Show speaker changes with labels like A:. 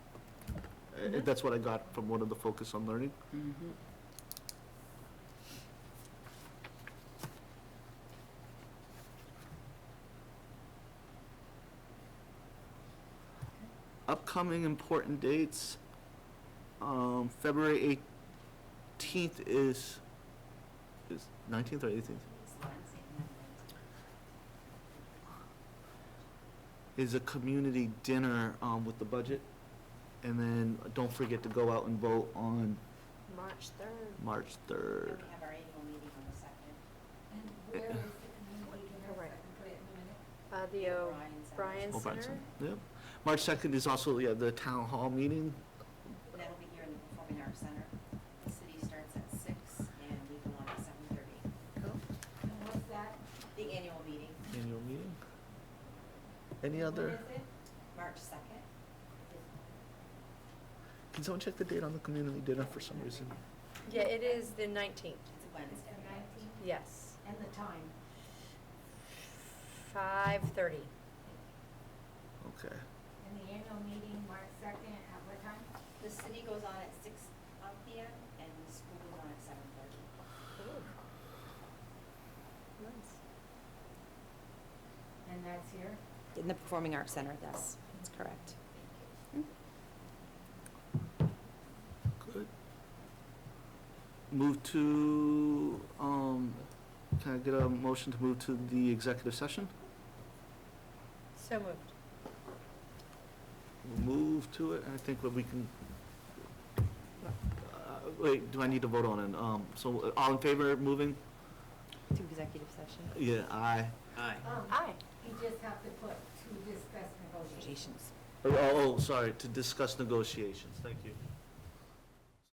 A: Uh, That's what I got from one of the Focus on Learning. Upcoming important dates, um, February 18th is, is 19th or 18th? Is a community dinner, um, with the budget. And then don't forget to go out and vote on
B: March third.
A: March 3rd.
C: And we have our annual meeting on the second.
D: And where is the community dinner, if I
B: Right.
D: can put it in a minute?
B: Uh, the
C: O'Brien's at-
B: O'Brien
A: O'Brien
B: Center.
A: Center, Yep. March 2nd is also, yeah, the town hall meeting.
C: And that'll be here in the Performing Arts Center. The city starts at six and we go on at seven thirty.
D: And what's that?
C: The annual meeting,
A: Annual meeting. Any
D: When
A: other,
D: is it?
C: March second.
A: can someone check the date on the community dinner for some reason?
B: Yeah, it is the nineteenth,
C: It's a
D: It's the
C: Wednesday.
D: nineteenth,
B: yes,
D: and the time.
B: five thirty.
A: Okay.
D: And the annual meeting, March second, at what time?
C: The city goes on at six uh, P M and the school goes on at seven thirty.
D: And that's here?
C: In the Performing Arts Center, yes, that's correct.
A: Good. Move to, um, can I get a motion to move to the executive session?
B: So moved.
A: We'll Move to it, and I think what we can, uh, wait, do I need to vote on it? Um, so uh, all in favor of moving?
B: To executive session.
A: Yeah, aye.
E: Aye.
D: Um,
B: Aye.
D: you just have to put to discuss negotiations.
A: Oh, Oh, oh, sorry, to discuss negotiations, thank you.